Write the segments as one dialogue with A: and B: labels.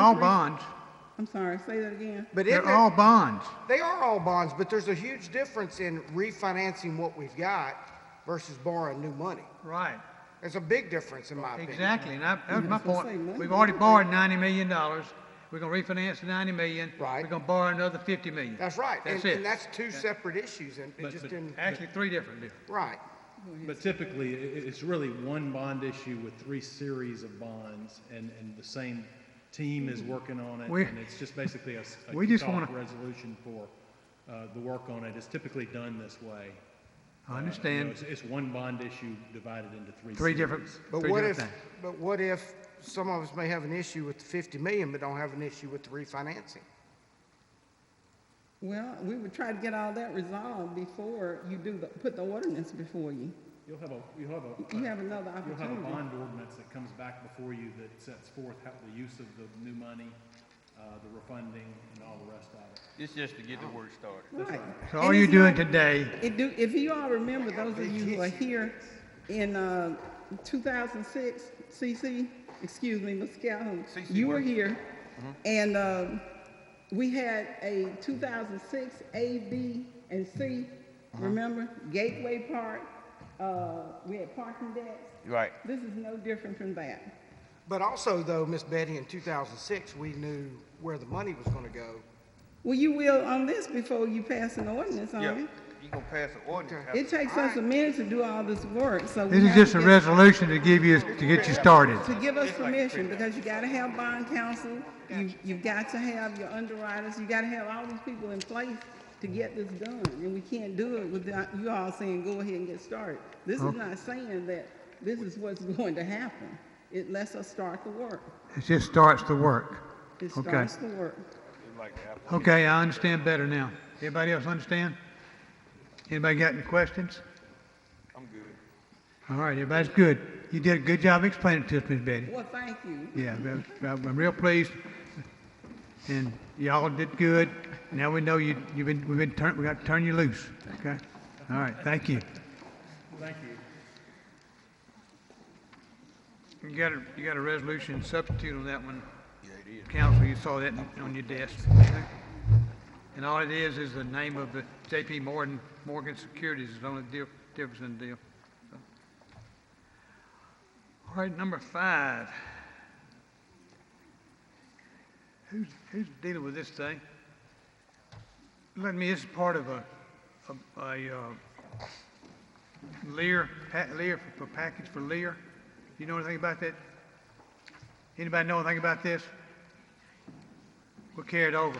A: All bonds.
B: I'm sorry, say that again.
C: But isn't
A: They're
C: there-
A: all bonds.
C: they are all bonds, but there's a huge difference in refinancing what we've got versus borrowing new money.
A: Right.
C: There's a big difference in my opinion.
A: Exactly. And I, that was my
B: That's what I'm saying,
A: point.
B: money
A: We've already
B: maker.
A: borrowed ninety million dollars. We're gonna refinance the ninety million.
C: Right.
A: We're gonna borrow another fifty million.
C: That's right.
A: That's
C: and,
A: it.
C: and that's two separate issues and it
D: But-
C: just
D: but-
C: didn't,
A: Actually, three different deals.
C: right.
D: But typically, i- i- it's really one bond issue with three series of bonds, and, and the same team is working on it,
A: We-
D: and it's just basically a, s- a
A: we just
D: kickoff
A: wanna-
D: resolution for uh, the work on it. It's typically done this
A: I
D: way. Uh, you know,
A: understand.
D: it's, it's one bond issue divided into three.
A: Three different,
D: series.
C: But
A: three
C: what
A: different
C: if,
A: things.
C: but what if some of us may have an issue with the fifty million, but don't have an issue with the refinancing?
B: Well, we would try to get all that resolved before you do the, put the ordinance before you.
D: You'll have a, you'll have a.
B: You have another
D: You'll have a
B: opportunity.
D: bond ordinance that comes back before you that sets forth how, the use of the new money, uh, the refunding, and all the rest of it.
E: It's just to get the work started.
B: Right.
A: So
B: And
A: all you're
B: it's
A: doing
B: not-
A: today,
B: It do, if you all remember, those of you who are here in, uh, two thousand six, CC, excuse me, Ms. Calhoun,
E: CC
B: you were
E: worked.
B: here.
D: Mm-hmm.
B: And, um, we had a two thousand six A, B, and C,
D: Uh-huh.
B: remember? Gateway Park, uh, we had parking decks.
E: Right.
B: This is no different from that.
C: But also though, Miss Betty, in two thousand six, we knew where the money was gonna go.
B: Well, you will on this before you pass an ordinance on
E: Yeah.
B: it.
E: You gonna pass an ordinance.
B: It takes us a minute to do all this work, so. we
A: this is
B: have to
A: just a
B: get-
A: resolution to give you, to get you started.
B: To give us permission, because you gotta have bond counsel, you, you've got to have your underwriters, you gotta have all these people in place to get this done, and we can't do it without you all saying, go ahead and get started. This
A: Oh.
B: is not saying that this is what's going to happen. It lets us start the work.
A: It just starts the work.
B: It
A: Okay.
B: starts the work.
A: Okay, I understand better now. Everybody else understand? Anybody got any questions?
E: I'm good.
A: All right, everybody's good. You did a good job explaining it to us, Miss Betty.
B: Well, thank you.
A: Yeah, I'm- I'm real pleased, and y'all did good. Now we know you, you've been, we've been turn, we got to turn you loose, okay? All right, thank you.
D: Thank you.
A: You got a, you got a resolution substitute on that one. Yeah, it is. Council, you saw that on your desk. And all it is, is the name of the JP Morgan, Morgan Securities is the only deal, difference in the deal. So. All right, number five. Who's, who's dealing with this thing? Let me, it's part of a, a, a, uh, Lear, Pat Lear, for package for Lear. You know anything about that? Anybody know anything about this? We'll carry it over.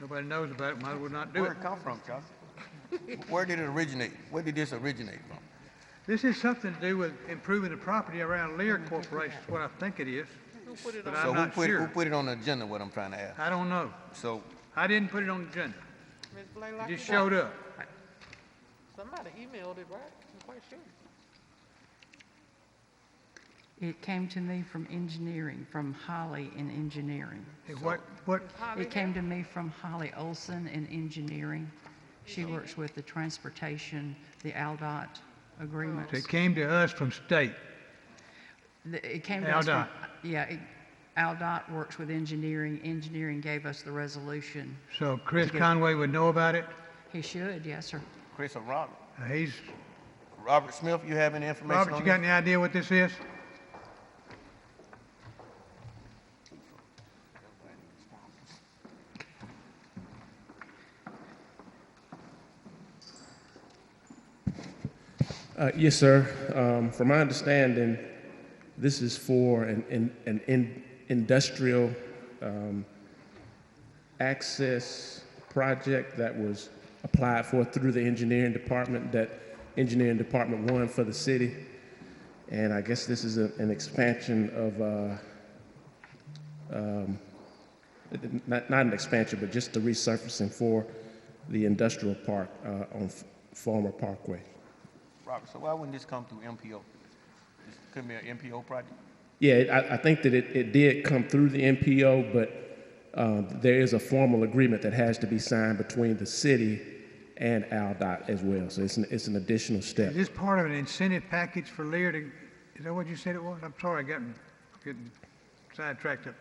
A: Nobody knows about it, might as well not do
E: Where'd
A: it.
E: it come from, Chauncey? Where did it originate? Where did this originate from?
A: This is something to do with improving the property around Lear Corporation, is what I think it is. But
E: So
A: I'm
E: who
A: not
E: put, who
A: sure.
E: put it on the agenda, what I'm trying to ask?
A: I don't know.
E: So,
A: I didn't put it on the agenda.
F: Ms. Blaylock,
A: It just
F: you got-
A: showed up.
F: Somebody emailed it, right? I'm quite sure.
G: It came to me from engineering, from Holly in engineering.
A: Hey, What, what,
F: Holly,
G: It came to me from Holly Olson in engineering. She works with the transportation, the ALDOT agreements.
A: it came to us from state.
G: The- It came to us from-
A: ALDOT.
G: Yeah, it- ALDOT works with engineering. Engineering gave us the resolution.
A: So Chris Conway would know about it.
G: He should, yes, sir.
E: Chris or Robert?
A: Uh, He's,
E: Robert Smith, you have any information on
A: Robert, you got
E: this?
A: any idea what this is?
H: Uh, Yes, sir. Um, From my understanding, this is for an- an an in- industrial um, access project that was applied for through the engineering department, that engineering department won for the city. And I guess this is a- an expansion of, uh, um, not not an expansion, but just the resurfacing for the industrial park uh, on F- former Parkway.
E: Robert, so why wouldn't this come through MPO? This could be an MPO project?
H: Yeah, it- I, I think that it, it did come through the NPO, but um, there is a formal agreement that has to be signed between the city and AlDOT as well. So it's an, it's an additional step.
A: Is this part of an incentive package for Lear to, is that what you said it was? I'm sorry, I got, getting, sidetracked up